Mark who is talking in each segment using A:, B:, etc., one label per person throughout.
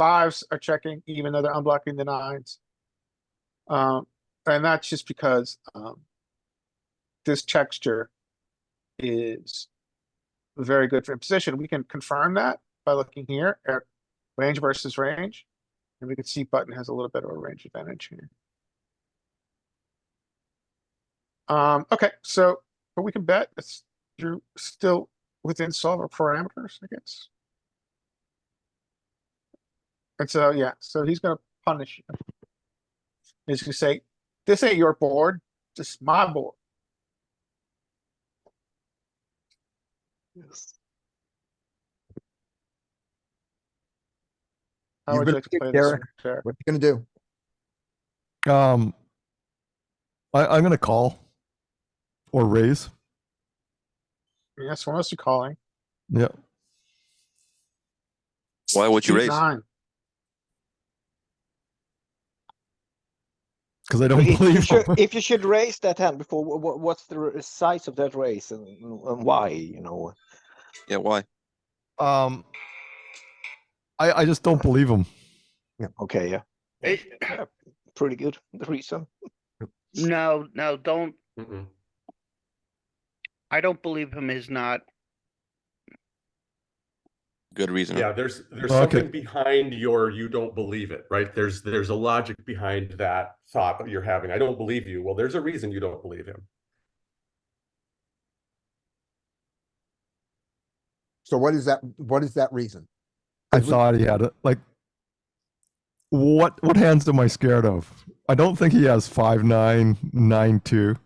A: fives are checking even though they're unblocking the nines. Um, and that's just because, um, this texture is very good for imposition. We can confirm that by looking here at range versus range. And we can see button has a little bit of a range advantage here. Um, okay, so, but we can bet it's, you're still within solver parameters, I guess. And so, yeah, so he's gonna punish you. He's gonna say, this ain't your board, this is my board.
B: Yes.
A: How
C: You've
A: would
C: been
A: you like to
C: picked,
A: play this,
C: Derek.
A: Derek?
C: What you gonna do?
D: Um, I, I'm gonna call or raise.
A: Yes, what else you calling?
D: Yeah,
E: Why would you
A: Two
E: raise?
A: nine.
D: because I
B: But
D: don't
B: if you
D: believe.
B: should, if you should raise that hand before, what, what's the r- size of that raise and, and why? You know,
E: Yeah, why?
D: um, I I just don't believe him.
B: okay, yeah,
F: It,
B: yeah, pretty good. The reason.
F: no, no, don't. I don't believe him is not.
E: Good reason.
G: Yeah, there's, there's
D: Okay.
G: something behind your, you don't believe it, right? There's, there's a logic behind that thought that you're having. I don't believe you. Well, there's a reason you don't believe him.
C: So what is that, what is that reason?
D: I
C: If we-
D: thought he had it. Like, what what hands am I scared of? I don't think he has five nine nine two.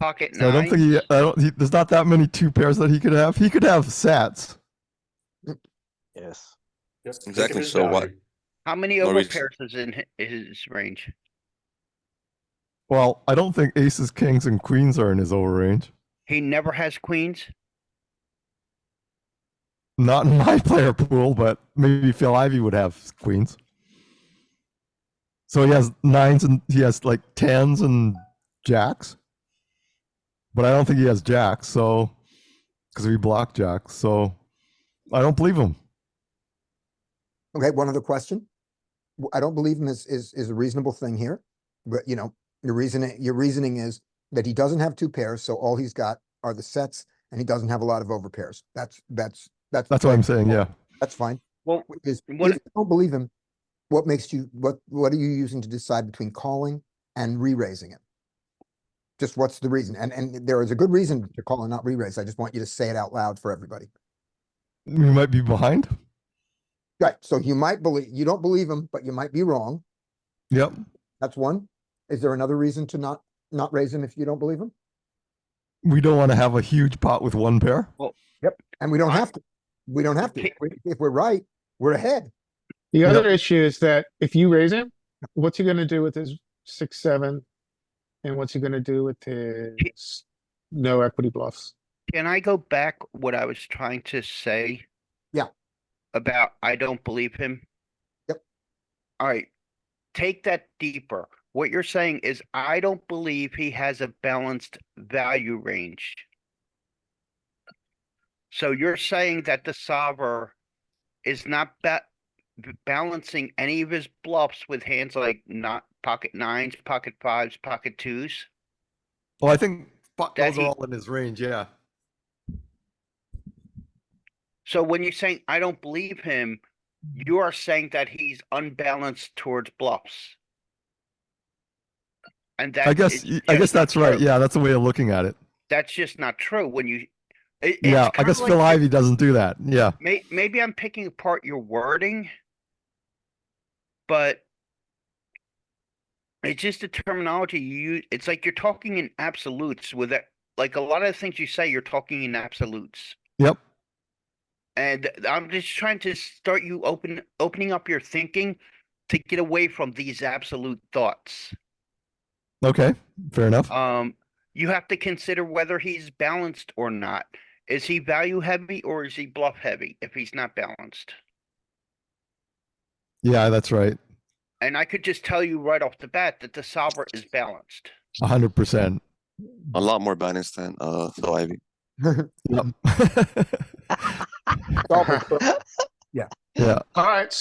F: Pocket
D: So I don't think
F: nine,
D: he. I don't. He, there's not that many two pairs that he could have. He could have sets.
B: Yes.
G: Yep, think of
E: Exactly,
G: his
E: so what-
G: value.
F: how many
E: No
F: over
E: reason.
F: pairs is in hi- his range?
D: Well, I don't think aces, kings, and queens are in his over range.
F: He never has queens?
D: Not in my player pool, but maybe Phil Ivy would have queens. So he has nines and he has like tens and jacks. But I don't think he has jacks, so because we block jacks, so I don't believe him.
C: Okay, one other question. W- I don't believe him is, is, is a reasonable thing here, but you know, your reasoning, your reasoning is that he doesn't have two pairs, so all he's got are the sets and he doesn't have a lot of over pairs. That's, that's, that's.
D: That's what I'm saying, yeah.
C: That's fine.
F: Well,
C: Wh- Is, if
F: what-
C: you don't believe him, what makes you, what, what are you using to decide between calling and re-raising it? Just what's the reason? And, and there is a good reason to call and not re-raise. I just want you to say it out loud for everybody.
D: We might be behind.
C: Right, so you might believe, you don't believe him, but you might be wrong.
D: Yep.
C: That's one. Is there another reason to not, not raise him if you don't believe him?
D: We don't want to have a huge pot with one pair.
C: And we don't
F: I-
C: have to. We don't have to.
F: Pe-
C: We- If we're right, we're ahead.
A: The
D: Yep.
A: other issue is that if you raise him, what's he gonna do with his six, seven? And what's he gonna do with his no equity bluffs?
F: Can I go back what I was trying to say?
C: Yeah.
F: About I don't believe him?
C: Yep.
F: Alright, take that deeper. What you're saying is I don't believe he has a balanced value range. So you're saying that the solver is not ba- b- balancing any of his bluffs with hands like not pocket nines, pocket fives, pocket twos?
D: Well, I think but
F: That
D: those are
F: he-
D: all in his range, yeah.
F: So when you're saying I don't believe him,
D: Mm-hmm.
F: you are saying that he's unbalanced towards bluffs. And that
D: I guess
F: is
D: I guess
F: just not
D: that's right.
F: true.
D: Yeah, that's a way of looking at it.
F: That's just not true when you. it-
D: yeah,
F: it's
D: I
F: kinda
D: guess
F: like
D: Phil
F: you-
D: Ivy doesn't do that. Yeah.
F: May, maybe I'm picking apart your wording. But. It's just the terminology you, use. it's like you're talking in absolutes with it, like a lot of the things you say, you're talking in absolutes.
D: Yep.
F: And I'm just trying to start you open, opening up your thinking to get away from these absolute thoughts.
D: Okay. Fair enough.
F: Um, you have to consider whether he's balanced or not. Is he value heavy or is he bluff heavy if he's not balanced?
D: Yeah, that's right.
F: And I could just tell you right off the bat that the solver is balanced.
D: A hundred percent.
E: A lot more balanced than uh Phil Ivy.
D: Yep.
C: Solver-
A: Alright,